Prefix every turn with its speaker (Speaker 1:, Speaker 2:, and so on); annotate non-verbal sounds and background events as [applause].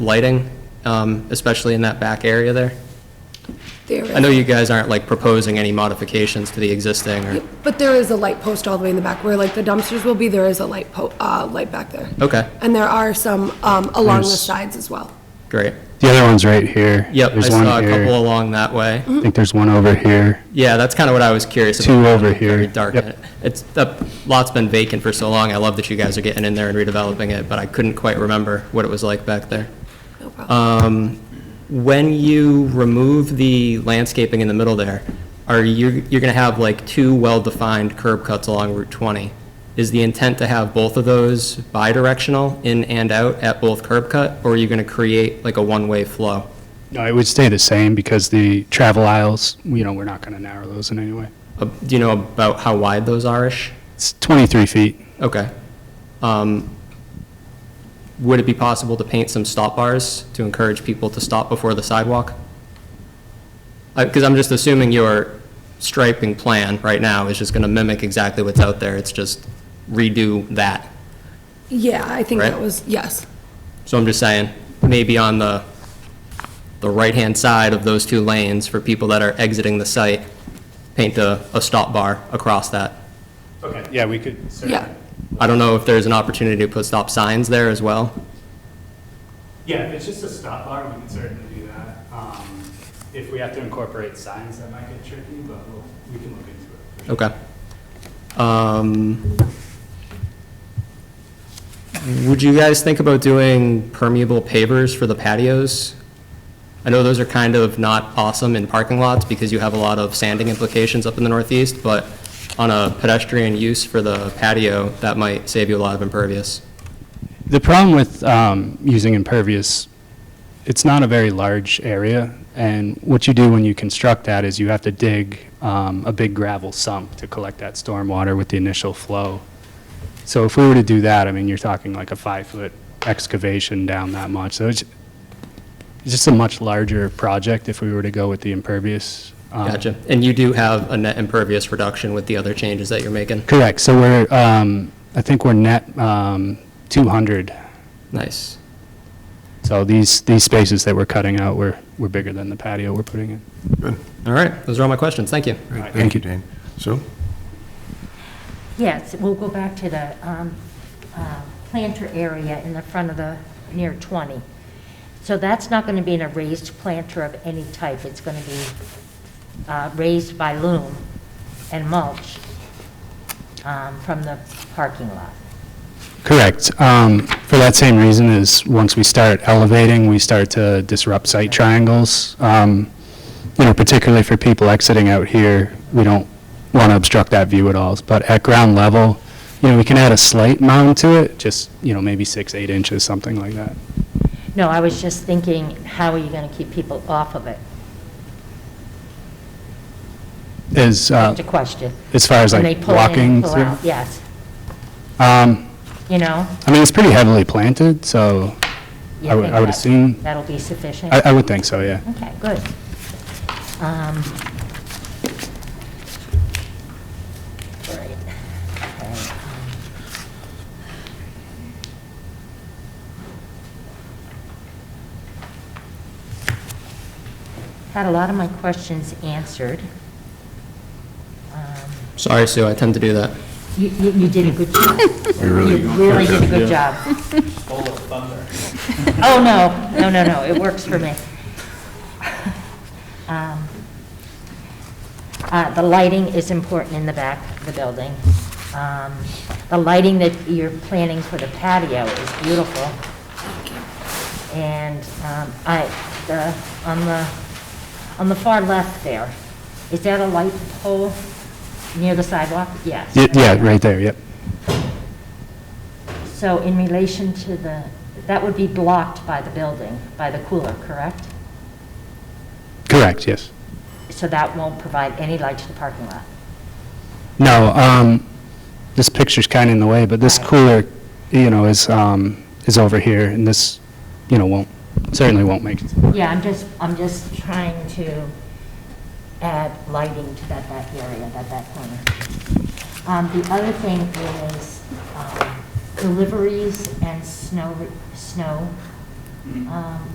Speaker 1: lighting, um, especially in that back area there?
Speaker 2: There
Speaker 1: I know
Speaker 2: is-
Speaker 1: you guys aren't like proposing any modifications to the existing or,
Speaker 2: But there is a light post all the way in the back where like the dumpsters will be, there is a light po, uh, light back there.
Speaker 1: okay,
Speaker 2: And there are some, um, along the
Speaker 3: There's-
Speaker 2: sides as well.
Speaker 1: great.
Speaker 3: The other one's right here.
Speaker 1: Yep, I
Speaker 3: There's one
Speaker 1: saw a couple
Speaker 3: here.
Speaker 1: along that way.
Speaker 3: I think there's one over here.
Speaker 1: Yeah, that's kind of what I was curious about.
Speaker 3: Two over here.
Speaker 1: Very dark.
Speaker 3: Yep.
Speaker 1: It's, the lot's been vacant for so long. I love that you guys are getting in there and redeveloping it, but I couldn't quite remember what it was like back there.
Speaker 2: No problem.
Speaker 1: Um, When you remove the landscaping in the middle there, are you, you're going to have like two well-defined curb cuts along Route 20. Is the intent to have both of those bi-directional, in and out, at both curb cut? Or are you going to create like a one-way flow?
Speaker 3: No, it would stay the same because the travel aisles, you know, we're not going to narrow those in any way.
Speaker 1: Uh, Do you know about how wide those are-ish?
Speaker 3: It's 23 feet.
Speaker 1: Okay. Um, Would it be possible to paint some stop bars to encourage people to stop before the sidewalk? Because I'm just assuming your striping plan right now is just going to mimic exactly what's out there. It's just redo that.
Speaker 2: Yeah, I think that
Speaker 1: Right.
Speaker 2: was, yes.
Speaker 1: So I'm just saying, maybe on the, the right-hand side of those two lanes for people that are exiting the site, paint a, a stop bar across that.
Speaker 3: Okay. Yeah, we could.
Speaker 2: Yeah.
Speaker 1: I don't know if there's an opportunity to put stop signs there as well.
Speaker 3: Yeah, if it's just a stop bar, we can certainly do that. Um, If we have to incorporate signs, that might get tricky, but we'll- we can look into it. for sure.
Speaker 1: Okay. Um, Would you guys think about doing permeable pavers for the patios? I know those are kind of not awesome in parking lots because you have a lot of sanding implications up in the northeast, but on a pedestrian use for the patio, that might save you a lot of impervious.
Speaker 3: The problem with um, using impervious, it's not a very large area, and what you do when you construct that is you have to dig um, a big gravel sump to collect that stormwater with the initial flow. So if we were to do that, I mean, you're talking like a five-foot excavation down that much, so it's it's just a much larger project if we were to go with the impervious. um,
Speaker 1: Gotcha. And you do have a net impervious reduction with the other changes that you're making.
Speaker 3: Correct, so we're, um, I think we're net um, 200
Speaker 1: Nice.
Speaker 3: So these, these spaces that we're cutting out were, were bigger than the patio we're putting in.
Speaker 1: All right, those are all my questions. Thank you.
Speaker 3: Right,
Speaker 4: Thank you, Dan. So,
Speaker 5: Yes, we'll go back to the um, uh, planter area in the front of the, near 20. So that's not going to be in a raised planter of any type. It's going to be uh, raised by loom and mulch um, from the parking lot.
Speaker 3: Correct. Um, For that same reason is, once we start elevating, we start to disrupt site triangles. Um, You know, particularly for people exiting out here, we don't want to obstruct that view at all. But at ground level, you know, we can add a slight mound to it, just, you know, maybe six, eight inches, something like that.
Speaker 5: No, I was just thinking, how are you going to keep people off of it?
Speaker 3: As, uh,
Speaker 5: That's a question.
Speaker 3: as far as
Speaker 5: When
Speaker 3: like
Speaker 5: they pull in and
Speaker 3: walking
Speaker 5: pull
Speaker 3: through.
Speaker 5: out, Yes,
Speaker 3: Um,
Speaker 5: you know?
Speaker 3: I mean, it's pretty heavily planted, so
Speaker 5: you
Speaker 3: I would-
Speaker 5: think
Speaker 3: I would
Speaker 5: that-
Speaker 3: assume-
Speaker 5: That'll be sufficient?
Speaker 3: I, I would think so, yeah.
Speaker 5: Okay, good. Um, right, okay, um, Had a lot of my questions answered. Um,
Speaker 1: Sorry, Sue, I tend to do that.
Speaker 5: You, you you did a good job. You
Speaker 4: really-
Speaker 5: really did a good job. [laughs] Oh, no, no, no, no, it works for me. [laughs] Um, uh, The lighting is important in the back of the building. Um, The lighting that you're planning for the patio is beautiful. And um, I, the, on the, on the far left there, is that a light pole near the sidewalk? Yes.
Speaker 3: Y- Yeah, right there, yep.
Speaker 5: So in relation to the, that would be blocked by the building, by the cooler, correct?
Speaker 3: Correct, yes.
Speaker 5: So that won't provide any light to the parking lot?
Speaker 3: No, um, this picture's kind of in the way, but this
Speaker 5: Right.
Speaker 3: cooler, you know, is, um, is over here, and this, you know, won't, certainly won't make,
Speaker 5: Yeah, I'm just, I'm just trying to add lighting to that back area, that back corner. Um, the other thing is, um, deliveries and snow, re- snow Um,